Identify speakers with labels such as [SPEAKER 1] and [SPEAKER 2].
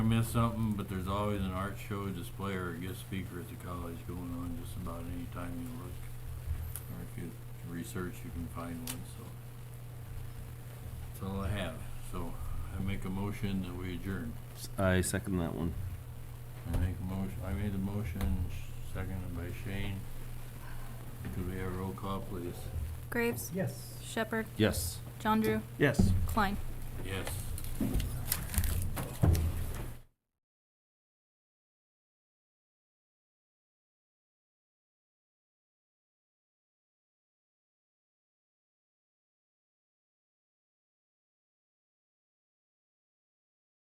[SPEAKER 1] miss something, but there's always an art show, display, or a guest speaker at the college going on just about any time you look. Or if you research, you can find one, so. That's all I have, so I make a motion that we adjourn.
[SPEAKER 2] I second that one.
[SPEAKER 1] I make a motion, I made a motion, seconded by Shane. Could we have a roll call, please?
[SPEAKER 3] Graves,
[SPEAKER 4] Yes.
[SPEAKER 3] Shepherd,
[SPEAKER 2] Yes.
[SPEAKER 3] John Drew,
[SPEAKER 4] Yes.
[SPEAKER 3] Klein.
[SPEAKER 1] Yes.